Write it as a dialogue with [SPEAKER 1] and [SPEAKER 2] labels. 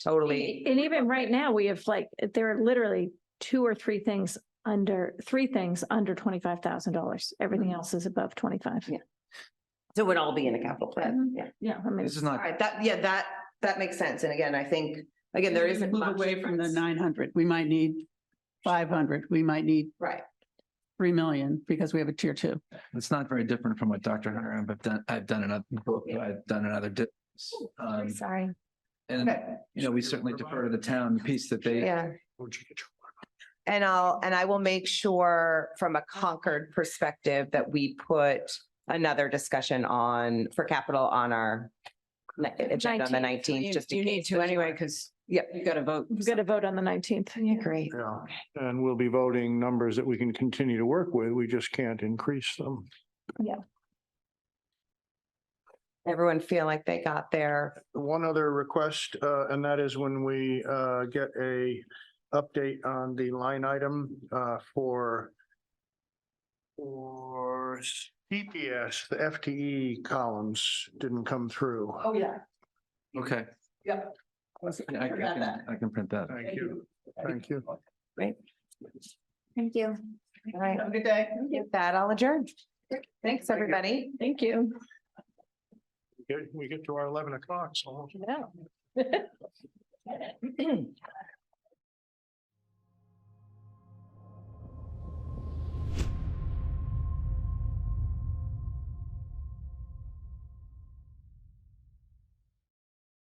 [SPEAKER 1] totally.
[SPEAKER 2] And even right now, we have like, there are literally two or three things under, three things under twenty-five thousand dollars. Everything else is above twenty-five.
[SPEAKER 1] Yeah. So it would all be in a capital plan,
[SPEAKER 2] Mhm.
[SPEAKER 1] yeah.
[SPEAKER 2] Yeah, I mean,
[SPEAKER 3] This is not,
[SPEAKER 1] All right, that, yeah, that, that makes sense. And again, I think, again, there
[SPEAKER 4] We
[SPEAKER 1] isn't
[SPEAKER 4] Move
[SPEAKER 1] much
[SPEAKER 4] away from the
[SPEAKER 1] difference.
[SPEAKER 4] nine hundred. We might need five hundred. We might need
[SPEAKER 1] Right,
[SPEAKER 4] three million because we have a tier two.
[SPEAKER 3] it's not very different from what Dr. Hunter, and I've done, I've done another, I've done another. di- um,
[SPEAKER 2] sorry.
[SPEAKER 3] And,
[SPEAKER 1] okay,
[SPEAKER 3] you know, we certainly defer to the town piece that they,
[SPEAKER 1] yeah. And I'll, and I will make sure from a Concord perspective that we put another discussion on, for capital on our ni- agenda on the nineteenth, just in case.
[SPEAKER 5] to anyway, because
[SPEAKER 1] Yep.
[SPEAKER 5] you've got to vote.
[SPEAKER 2] We've got to vote on the nineteenth.
[SPEAKER 5] Great.
[SPEAKER 6] Yeah, and we'll be voting numbers that we can continue to work with. We just can't increase them.
[SPEAKER 1] Everyone feel like they got their,
[SPEAKER 6] One other request, uh, and that is when we, uh, get a update on the line item, uh, for for CPS, the FTE columns didn't come through.
[SPEAKER 1] oh, yeah,
[SPEAKER 3] okay.
[SPEAKER 1] Yep.
[SPEAKER 3] Yeah, I I
[SPEAKER 1] Forgot
[SPEAKER 3] can,
[SPEAKER 1] that.
[SPEAKER 3] I can print that.
[SPEAKER 6] Thank you. Thank you.
[SPEAKER 2] Thank you.
[SPEAKER 1] all right. Have a good day. With that, I'll adjourn. Thanks, everybody.
[SPEAKER 2] Thank you.
[SPEAKER 6] We get- We get to our eleven o'clock, so.
[SPEAKER 2] No.